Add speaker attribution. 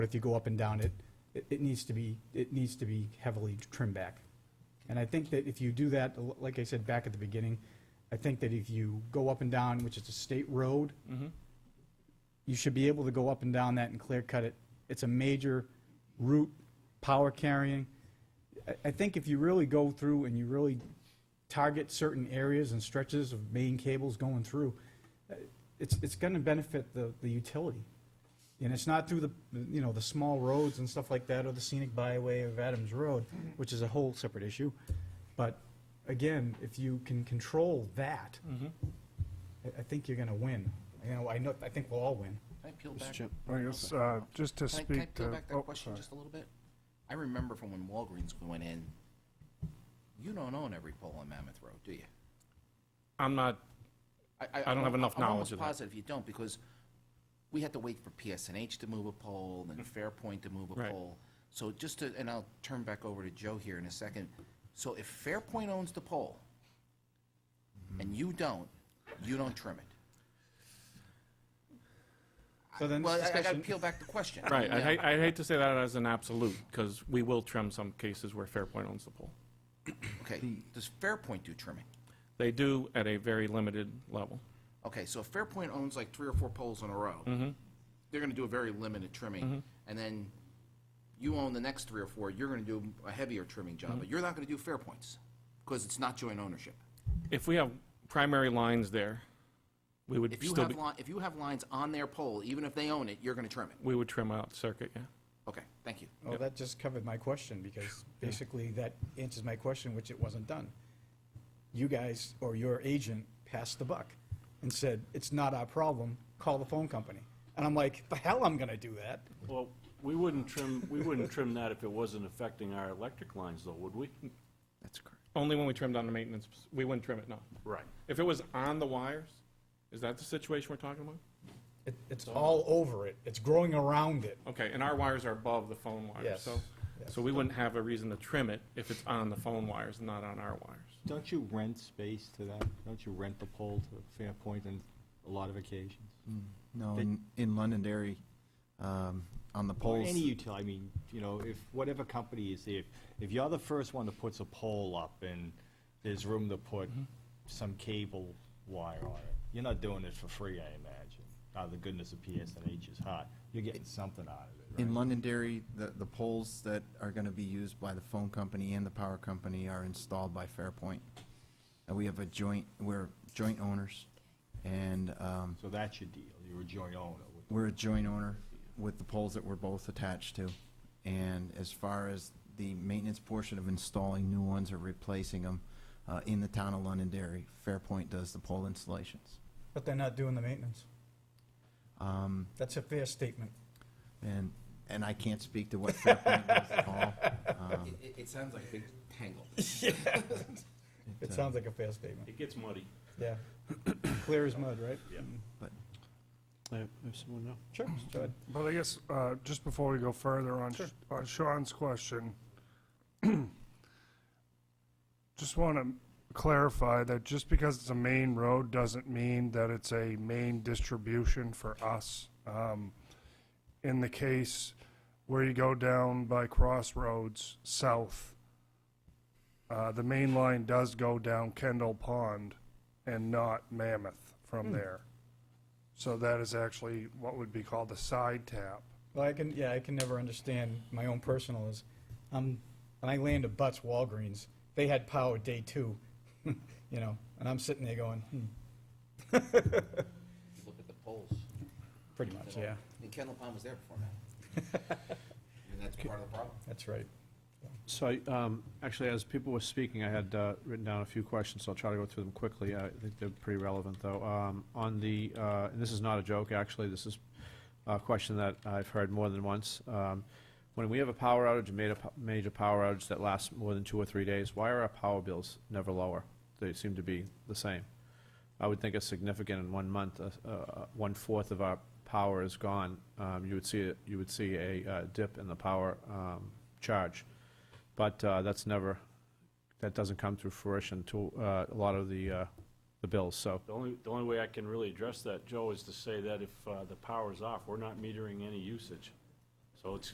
Speaker 1: But if you go up and down, it, it, it needs to be, it needs to be heavily trimmed back. And I think that if you do that, l- like I said back at the beginning, I think that if you go up and down, which is a state road,
Speaker 2: Mm-hmm.
Speaker 1: you should be able to go up and down that and clear cut it. It's a major route, power carrying. I, I think if you really go through and you really target certain areas and stretches of main cables going through, uh, it's, it's gonna benefit the, the utility. And it's not through the, you know, the small roads and stuff like that, or the scenic byway of Adams Road, which is a whole separate issue. But again, if you can control that, I, I think you're gonna win. You know, I know, I think we'll all win.
Speaker 3: Can I peel back?
Speaker 4: I guess, uh, just to
Speaker 3: Can I, can I
Speaker 4: speak to.
Speaker 3: peel back
Speaker 4: oh,
Speaker 3: that question
Speaker 4: sorry.
Speaker 3: just a little bit? I remember from when Walgreens went in, you don't own every pole on Mammoth Road, do you?
Speaker 2: I'm not, I don't have enough
Speaker 3: I'm
Speaker 2: knowledge
Speaker 3: almost
Speaker 2: of that.
Speaker 3: positive you don't, because we had to wait for PSNH to move a pole, then Fairpoint to move a
Speaker 2: Mm-hmm. Right.
Speaker 3: pole. So just to, and I'll turn back over to Joe here in a second. So if Fairpoint owns the pole, and you don't, you don't trim it.
Speaker 1: So then
Speaker 3: Well,
Speaker 1: this
Speaker 3: I- I gotta
Speaker 1: discussion,
Speaker 3: peel back the question.
Speaker 2: right, I
Speaker 3: Yeah.
Speaker 2: hate, I hate to say that as an absolute, because we will trim some cases where Fairpoint owns the pole.
Speaker 3: Okay, does Fairpoint do trimming?
Speaker 2: They do at a very limited level.
Speaker 3: Okay, so if Fairpoint owns like three or four poles in a row,
Speaker 2: Mm-hmm.
Speaker 3: they're gonna do a very limited trimming, and then you own the next three or four, you're gonna do a heavier trimming
Speaker 2: Mm-hmm.
Speaker 3: job, but you're not gonna do Fairpoint's, because it's not joint ownership.
Speaker 2: If we have primary lines there, we would
Speaker 3: If you
Speaker 2: still
Speaker 3: have
Speaker 2: be,
Speaker 3: li, if you have lines on their pole, even if they own it, you're gonna trim it.
Speaker 2: we would trim out circuit, yeah.
Speaker 3: Okay, thank you.
Speaker 1: well, Oh, that just covered my question, because basically that answers my question, which it wasn't done. You guys, or your agent, passed the buck and said, it's not our problem, call the phone company. And I'm like, the hell I'm gonna do that?
Speaker 5: Well, we wouldn't trim, we wouldn't trim that if it wasn't affecting our electric lines, though, would we?
Speaker 2: Only when we trim down the maintenance, we wouldn't trim it, no.
Speaker 5: Right.
Speaker 2: If it was on the wires, is that the situation we're talking about?
Speaker 1: It, it's all over it, it's growing around it.
Speaker 2: Okay, and our wires are above the phone wires,
Speaker 1: Yes,
Speaker 2: so, so we wouldn't have a reason to trim it if it's on the phone wires, not on our wires.
Speaker 6: Don't you rent space to that? Don't you rent the pole to Fairpoint on a lot of occasions?
Speaker 7: No,
Speaker 6: They-
Speaker 7: in, in Londonderry, um, on the
Speaker 6: Or
Speaker 7: poles.
Speaker 6: any utility, I mean, you know, if, whatever company is there, if- if you're the first one that puts a pole up and there's room to put some cable wire on it, you're not doing it for free, I imagine. Out of the goodness of PSNH's heart, you're getting something out of it,
Speaker 7: In
Speaker 6: right?
Speaker 7: Londonderry, the, the poles that are gonna be used by the phone company and the power company are installed by Fairpoint. And we have a joint, we're joint owners, and, um,
Speaker 6: So that's your deal, you're a joint owner. with-
Speaker 7: we're a joint owner with the poles that we're both attached to. And as far as the maintenance portion of installing new ones or replacing them, uh, in the town of Londonderry, Fairpoint does the pole installations.
Speaker 1: But they're not doing the maintenance.
Speaker 7: Um,
Speaker 1: That's a fair statement.
Speaker 7: and, and I can't speak to what Fairpoint does at all. Um,
Speaker 3: It, it, it sounds like a big tangle.
Speaker 1: It sounds like a fair statement,
Speaker 5: It gets muddy.
Speaker 1: yeah. Clear as mud, right? Mm-hmm.
Speaker 5: Yeah.
Speaker 1: Sure, go ahead.
Speaker 4: But I guess, uh, just before we go further on, Sh- on Sean's question, just want to clarify that just because it's a main road doesn't mean that it's a main distribution for us. Um, in the case where you go down by Crossroads South, uh, the main line does go down Kendall Pond and not Mammoth from there. So that is actually what would be called a side tap.
Speaker 1: Well, I can, yeah, I can never understand my own personal is, um, and I land at Butts Walgreens, they had power day two, you know, and I'm sitting there going, hmm,
Speaker 3: Look at the poles.
Speaker 1: pretty much, yeah,
Speaker 3: And Kendall Pond was there before that. And that's part of the problem.
Speaker 1: that's right.
Speaker 8: So, I, um, actually, as people were speaking, I had uh, written down a few questions, so I'll try to go through them quickly. I think they're pretty relevant, though. Um, On the, uh, and this is not a joke, actually, this is a question that I've heard more than once. Um, When we have a power outage, a major, major power outage that lasts more than two or three days, why are our power bills never lower? They seem to be the same. I would think it's significant in one month, uh, uh, one-fourth of our power is gone. Um, You would see, a- you would see a uh, dip in the power um, charge. But uh, that's never, that doesn't come to fruition to uh, a lot of the, uh, the bills, so.
Speaker 5: The only, the only way I can really address that, Joe, is to say that if uh, the power's off, we're not metering any usage. So it's,